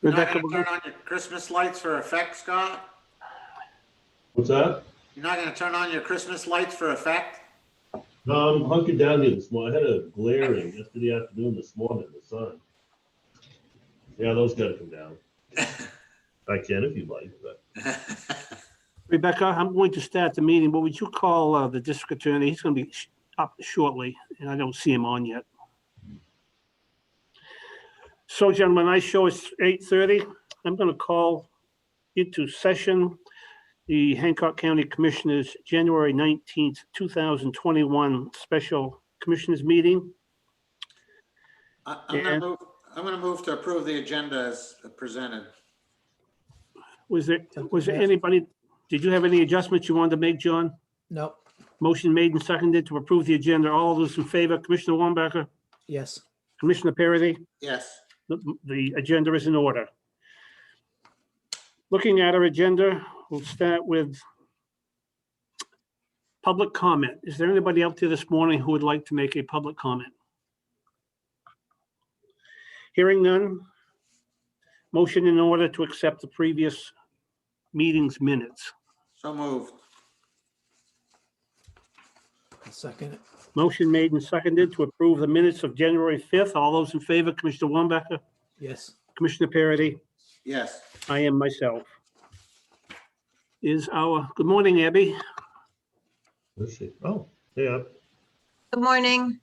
You're not Rebecca, gonna turn on your Christmas lights for effect, Scott? What's that? You're not gonna turn on your Christmas lights for effect? No, I'm hunkered down here this morning. I had a glaring yesterday afternoon, this morning, the sun. Yeah, those gotta come down. I can if you like, but Rebecca, I'm going to start the meeting, but would you call uh, the district attorney? He's going to be sh- up shortly, and I don't see him on yet. So gentlemen, I show it's 8:30. I'm going to call into session the Hancock County Commissioners, January 19th, 2021 Special Commissioners Meeting. I- I'm gonna Yeah. move, I'm gonna move to approve the agenda as presented. Was there, was there anybody, did you have any adjustments you wanted to make, John? Nope. Motion made and seconded to approve the agenda. All those in favor, Commissioner Wambacher, Yes. Commissioner Parity, Yes, the, the agenda is in order. Looking at our agenda, we'll start with public comment. Is there anybody out there this morning who would like to make a public comment? Hearing none. Motion in order to accept the previous meeting's minutes. so moved. I'll Second. it. Motion made and seconded to approve the minutes of January 5th. All those in favor, Commissioner Wambacher, Yes. Commissioner Parity, Yes, I am myself. Is our, good morning, Abby. let's see. Oh, yeah. Good morning.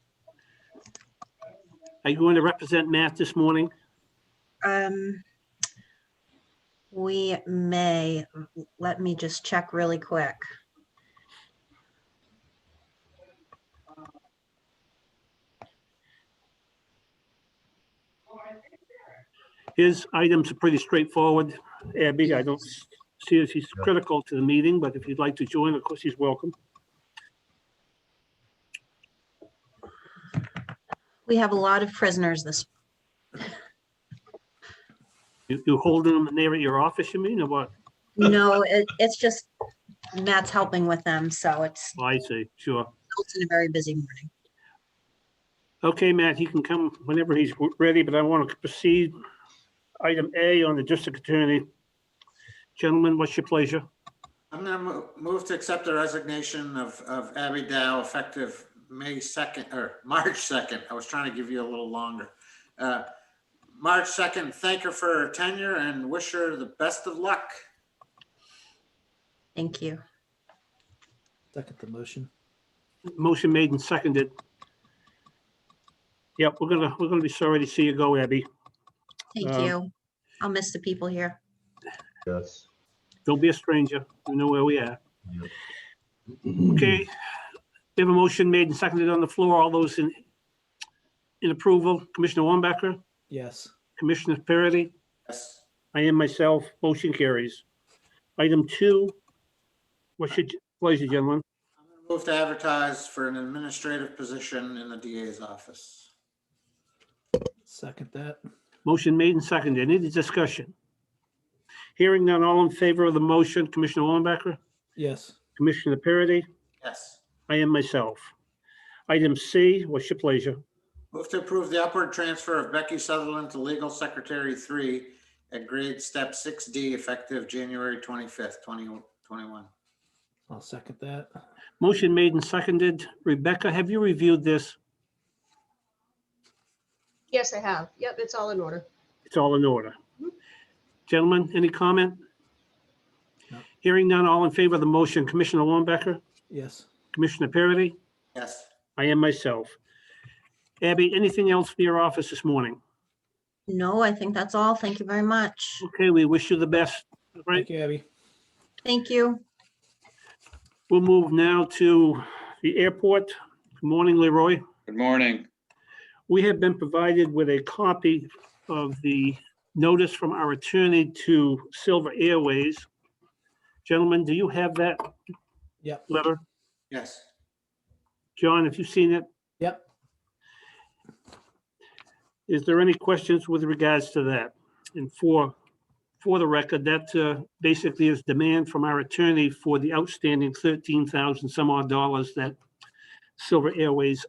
Are you going to represent Matt this morning? Um, We may, let me just check really quick. His items are pretty straightforward. Abby, I don't see as he's critical to the meeting, but if you'd like to join, of course, he's welcome. We have a lot of prisoners this, You, you holding them there at your office, you mean, or what? no, it- it's just Matt's helping with them, so it's, Oh, I see, sure. it's been a very busy morning. Okay, Matt, he can come whenever he's w- ready, but I want to proceed. Item A on the district attorney. Gentlemen, what's your pleasure? I'm gonna mo- move to accept the resignation of, of Abby Dow effective May second, or March second. I was trying to give you a little longer. Uh, March second, thank her for her tenure and wish her the best of luck. Thank you. Second the motion. Motion made and seconded. Yep, we're gonna, we're gonna be sorry to see you go, Abby. Thank Um, you. I'll miss the people here. Yes. Don't be a stranger. You know where we are. Yep. Okay. We have a motion made and seconded on the floor. All those in, in approval, Commissioner Wambacher, Yes. Commissioner Parity, Yes, I am myself, motion carries. Item two, what's your pleasure, gentlemen? I'm gonna move to advertise for an administrative position in the DA's office. Second that. Motion made and seconded. Any discussion? Hearing none, all in favor of the motion, Commissioner Wambacher, Yes. Commissioner Parity, Yes. I am myself. Item C, what's your pleasure? Move to approve the upward transfer of Becky Sutherland to legal secretary three at grade step six D effective January twenty-fifth, twenty twenty-one. I'll second that. Motion made and seconded. Rebecca, have you reviewed this? Yes, I have. Yep, it's all in order. It's all in order. Gentlemen, any comment? No. Hearing none, all in favor of the motion, Commissioner Wambacher, Yes. Commissioner Parity, Yes, I am myself. Abby, anything else for your office this morning? No, I think that's all. Thank you very much. Okay, we wish you the best. Right, Thank you, Abby. Thank you. we'll move now to the airport. Good morning, Leroy. Good morning. We have been provided with a copy of the notice from our attorney to Silver Airways. Gentlemen, do you have that Yep. letter? yes. John, have you seen it? Yep. Is there any questions with regards to that? And for, for the record, that uh, basically is demand from our attorney for the outstanding 13,000 some odd dollars that Silver Airways